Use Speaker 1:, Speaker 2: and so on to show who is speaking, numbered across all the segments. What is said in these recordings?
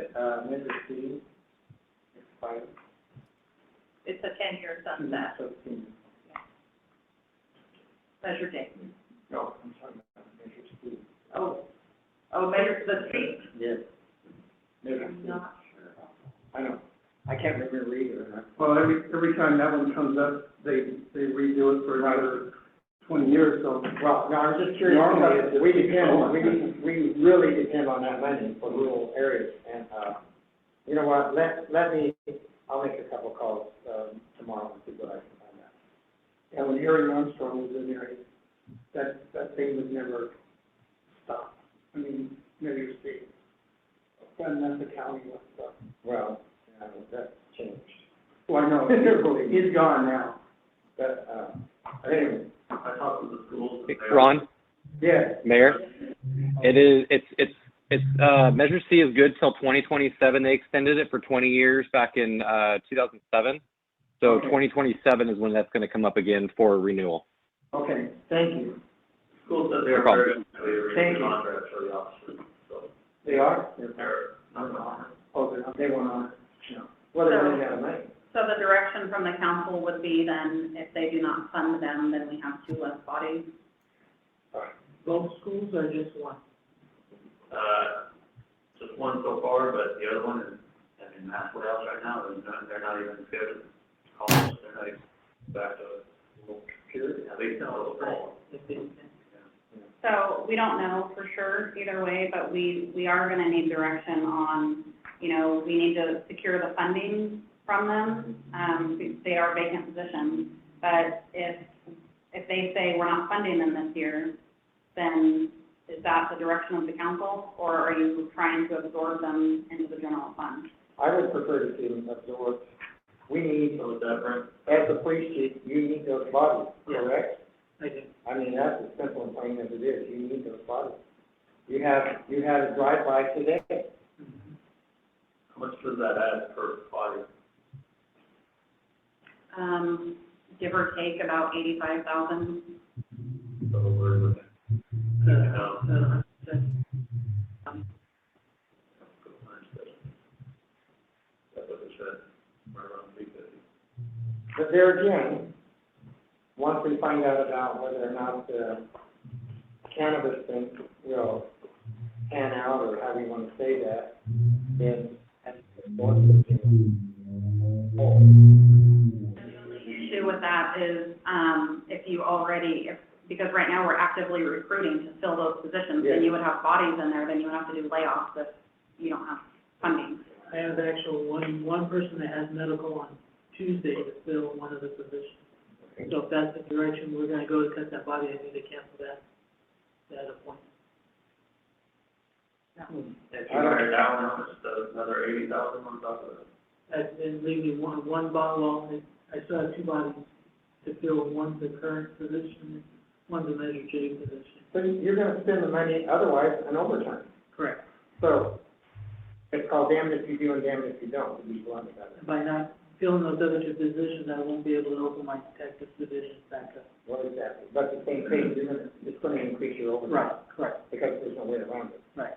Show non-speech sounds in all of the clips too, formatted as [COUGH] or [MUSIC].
Speaker 1: uh, Mrs. C, expired.
Speaker 2: It's a ten-year sunset,
Speaker 1: Seventeen.
Speaker 2: measure date.
Speaker 1: No, I'm talking about Mrs. C.
Speaker 2: Oh, oh, measure the street?
Speaker 1: Yes.
Speaker 2: I'm
Speaker 1: Mrs. C,
Speaker 2: not sure.
Speaker 1: I know, I can't remember either,
Speaker 3: Well, every, every time that one comes up, they, they redo it for another twenty years, so.
Speaker 1: well, no, I'm just curious,
Speaker 3: Normally,
Speaker 1: because
Speaker 3: it's-
Speaker 1: we depend, we, we really depend on that money for rural areas, and, uh, you know what, let, let me, I'll make a couple calls, um, tomorrow and see what I can find out.
Speaker 3: Yeah, when Harry Armstrong was in there, he- that, that thing was never stopped. I mean, maybe it was big. And that's the county was, so.
Speaker 1: Well, uh, that changed,
Speaker 3: Well, I
Speaker 1: [LAUGHS]
Speaker 3: know, he's gone now.
Speaker 1: but, uh, anyway,
Speaker 4: I talked to the schools. and they-
Speaker 5: Ron,
Speaker 1: yeah,
Speaker 5: Mayor, it is, it's, it's, it's, uh, Measure C is good till twenty twenty-seven. They extended it for twenty years back in, uh, two thousand seven. So
Speaker 1: Okay.
Speaker 5: twenty twenty-seven is when that's gonna come up again for renewal.
Speaker 1: okay, thank you.
Speaker 4: Schools said they
Speaker 5: No
Speaker 4: were
Speaker 5: problem.
Speaker 4: very, they were
Speaker 1: Thank you.
Speaker 4: contract for the officers, so
Speaker 1: They are? They're-
Speaker 4: they're not on.
Speaker 1: Oh, they they went on, no. Well, they running out of money.
Speaker 2: So the direction from the council would be then, if they do not fund them, then we have two less bodies.
Speaker 6: Both schools or just one?
Speaker 4: Uh, just one so far, but the other one is, I mean, that's what else right now, they're not, they're not even good at college, they're not even back to school. At least not a little fall.
Speaker 6: If it's-
Speaker 2: So we don't know for sure either way, but we, we are gonna need direction on, you know, we need to secure the funding from them. Um, they are vacant positions, but if, if they say we're not funding them this year, then is that the direction of the council? Or are you trying to absorb them into the general fund?
Speaker 1: I would prefer to see them absorbed. We need,
Speaker 4: So with that, Brent,
Speaker 1: as the police chief, you need those bodies, correct?
Speaker 6: I do.
Speaker 1: I mean, that's as simple and plain as it is, you need those bodies. You have, you had a drive-by today,
Speaker 4: how much does that add per body?
Speaker 2: Um, give or take about eighty-five thousand.
Speaker 4: So we're looking, you know,
Speaker 6: Uh, so-
Speaker 4: that's what they said, right around three fifty.
Speaker 1: but there again, once we find out about whether or not the cannabis thing will pan out, or how we wanna say that, then that's the board's opinion. Oh.
Speaker 2: issue with that is, um, if you already, if, because right now we're actively recruiting to fill those positions, then
Speaker 1: Yes.
Speaker 2: you would have bodies in there, then you would have to do layoffs if you don't have funding.
Speaker 6: I have actual one, one person that has medical on Tuesday to fill one of the positions. So if that's the direction we're gonna go to cut that body, I need to cancel that, that appointment.
Speaker 4: If you write it down, how much does another eighty thousand on top of it?
Speaker 6: I've been leaving one, one bottle, I, I still have two bodies to fill, one's the current position, one's a Measure J position.
Speaker 1: So you're gonna spend the money otherwise on overtime.
Speaker 6: Correct.
Speaker 1: So it's called damned if you do and damned if you don't, to be blunt about it.
Speaker 6: by not filling those other two positions, I won't be able to open my detective division back up.
Speaker 1: What is that? But the same thing, you're gonna, it's gonna increase your overtime.
Speaker 6: Right, correct,
Speaker 1: Because there's no way around it.
Speaker 6: right.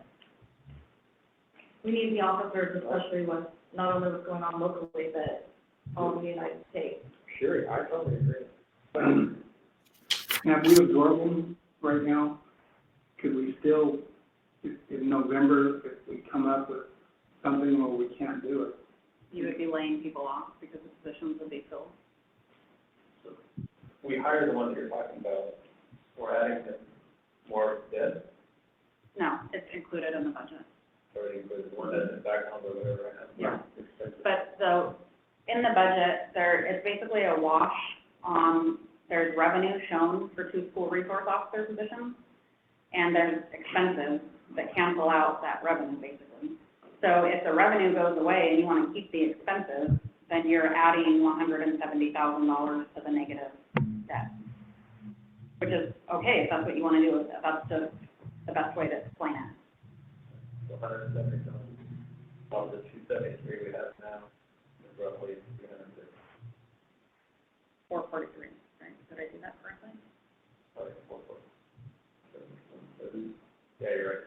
Speaker 7: we need the officers, especially with not only what's going on locally, but all in the United States.
Speaker 1: Sure, I totally agree.
Speaker 3: Now, if we absorb them right now, could we still, if- in November, if we come up with something where we can't do it?
Speaker 2: You would be laying people off because the positions would be filled.
Speaker 4: We hire the ones you're talking about, we're adding them more dead,
Speaker 2: No, it's included in the budget.
Speaker 4: already included, the one that's in back on the whatever I have.
Speaker 2: Yeah. But so, in the budget, there is basically a wash, um, there's revenue shown for two school resource officer positions, and there's expenses that cancel out that revenue, basically. So if the revenue goes away and you wanna keep the expenses, then you're adding one hundred and seventy thousand dollars to the negative debt. Which is, okay, if that's what you wanna do, if that's the, the best way to explain it.
Speaker 4: hundred and seventy thousand, of the two seventy-three we have now, is roughly three hundred and fifty,
Speaker 2: four forty-three, right? Did I do that correctly?
Speaker 4: probably four forty. Yeah, you're right.